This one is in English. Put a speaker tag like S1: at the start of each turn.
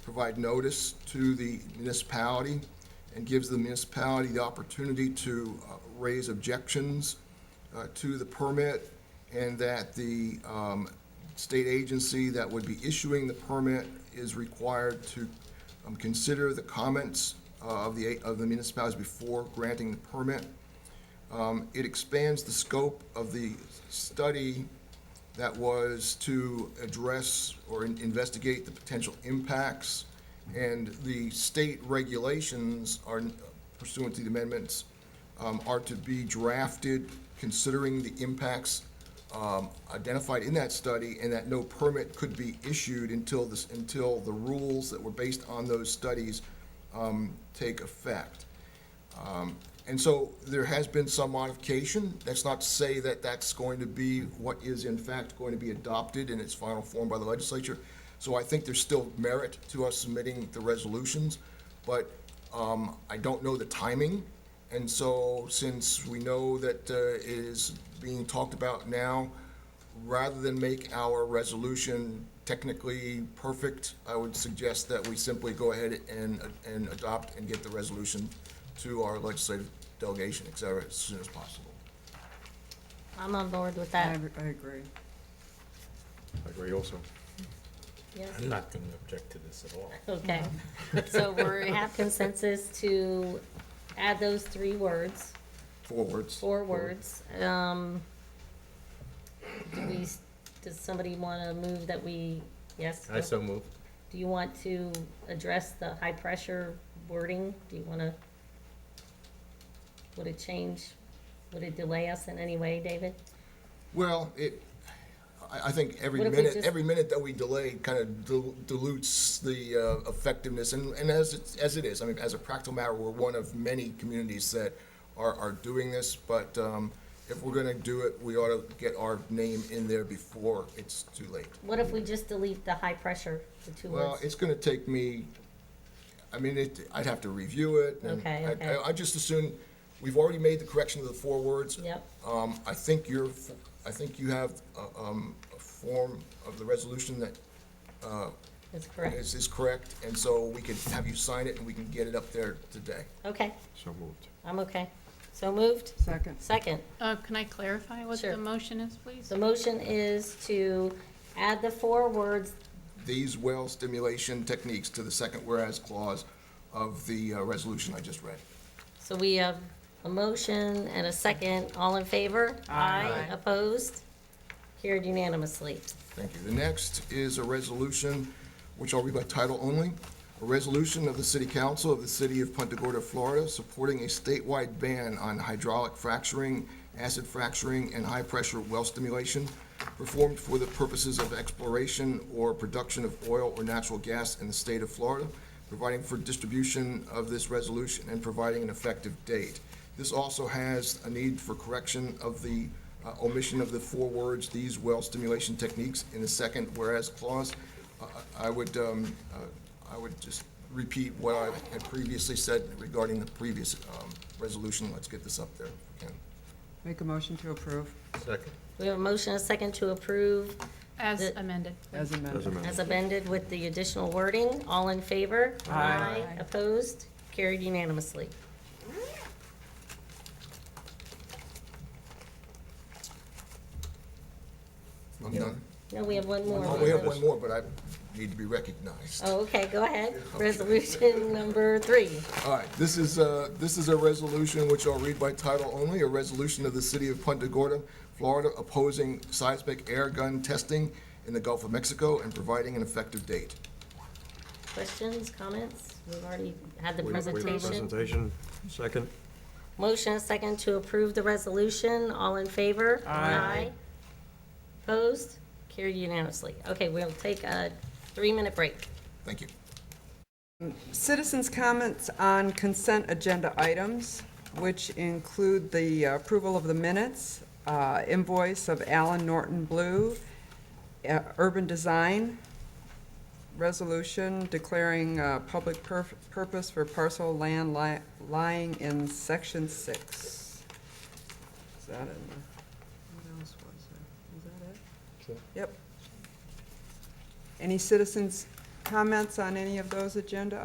S1: provide notice to the municipality and gives the municipality the opportunity to uh, raise objections uh, to the permit and that the um, state agency that would be issuing the permit is required to um, consider the comments uh, of the, of the municipalities before granting the permit. Um, It expands the scope of the study that was to address or in- investigate the potential impacts. And the state regulations are uh, pursuant to the amendments um, are to be drafted considering the impacts um, identified in that study and that no permit could be issued until this, until the rules that were based on those studies um, take effect. Um, And so there has been some modification. That's not to say that that's going to be what is in fact going to be adopted in its final form by the legislature. So I think there's still merit to us submitting the resolutions, but um, I don't know the timing. And so since we know that uh, it is being talked about now, rather than make our resolution technically perfect, I would suggest that we simply go ahead and, and adopt and get the resolution to our legislative delegation, et cetera, as soon as possible.
S2: I'm on board with
S3: I,
S2: that.
S3: I agree.
S4: I agree also.
S2: Yeah.
S5: I'm not going to object to this at all.
S2: Okay. So we have consensus to add those three words,
S1: Forwards.
S2: four words. Um, do we, does somebody want to move that we, yes?
S5: I so move.
S2: Do you want to address the high-pressure wording? Do you want to, would it change, would it delay us in any way, David?
S1: Well, it, I, I think every
S2: What if we
S1: minute,
S2: just-
S1: every minute that we delay kind of dilutes the uh, effectiveness, and, and as it, as it is, I mean, as a practical matter, we're one of many communities that are, are doing this, but um, if we're gonna do it, we ought to get our name in there before it's too late.
S2: What if we just delete the high-pressure, the two
S1: Well,
S2: words?
S1: it's gonna take me, I mean, it, I'd have to review it, and
S2: Okay,
S1: I-
S2: okay.
S1: I, I just assume, we've already made the correction to the four words.
S2: Yep.
S1: Um, I think you're, I think you have, uh, um, a form of the resolution that
S2: That's correct.
S1: is, is correct, and so we can have you sign it and we can get it up there today.
S2: Okay,
S4: So moved.
S2: I'm okay. So moved.
S3: Second.
S2: Second,
S6: Uh, Can I clarify what
S2: Sure.
S6: the motion is, please?
S2: the motion is to add the four words,
S1: These well stimulation techniques to the second whereas clause of the uh, resolution I just read.
S2: so we have a motion and a second, all in favor? Aye. Opposed? Carried unanimously.
S1: Thank you. The next is a resolution, which I'll read by title only. A resolution of the City Council of the City of Punta Gorda, Florida, supporting a statewide ban on hydraulic fracturing, acid fracturing, and high-pressure well stimulation performed for the purposes of exploration or production of oil or natural gas in the state of Florida, providing for distribution of this resolution and providing an effective date. This also has a need for correction of the uh, omission of the four words, "these well stimulation techniques" in the second whereas clause. Uh, I would, um, uh, I would just repeat what I had previously said regarding the previous um, resolution. Let's get this up there. if we can.
S3: Make a motion to approve
S5: Second.
S2: We have a motion and a second to approve
S6: As
S2: The-
S6: amended.
S3: as
S4: As
S3: amended.
S4: amended.
S2: as amended with the additional wording, all in favor?
S3: Aye.
S2: Opposed? Carried unanimously.
S1: I'm done.
S2: No, we have one more.
S1: Oh, We have one more, but I need to be recognized.
S2: Oh, okay, go ahead. Resolution number three.
S1: All right, this is, uh, this is a resolution which I'll read by title only, a resolution of the city of Punta Gorda, Florida, opposing seismic air gun testing in the Gulf of Mexico and providing an effective date.
S2: Questions, comments? We've already had the
S4: We- we-
S2: presentation.
S4: Presentation, second.
S2: Motion and second to approve the resolution. All in favor? Aye. Opposed? Carried unanimously. Okay, we'll take a three-minute break.
S1: Thank you.
S3: Citizens' comments on consent agenda items, which include the approval of the minutes, uh, invoice of Allen Norton Blue, uh, urban design, resolution declaring uh, public pur- purpose for parcel land li- lying in section six. Is that in the, what else was there? Is that it? Yep. Any citizens' comments on any of those agenda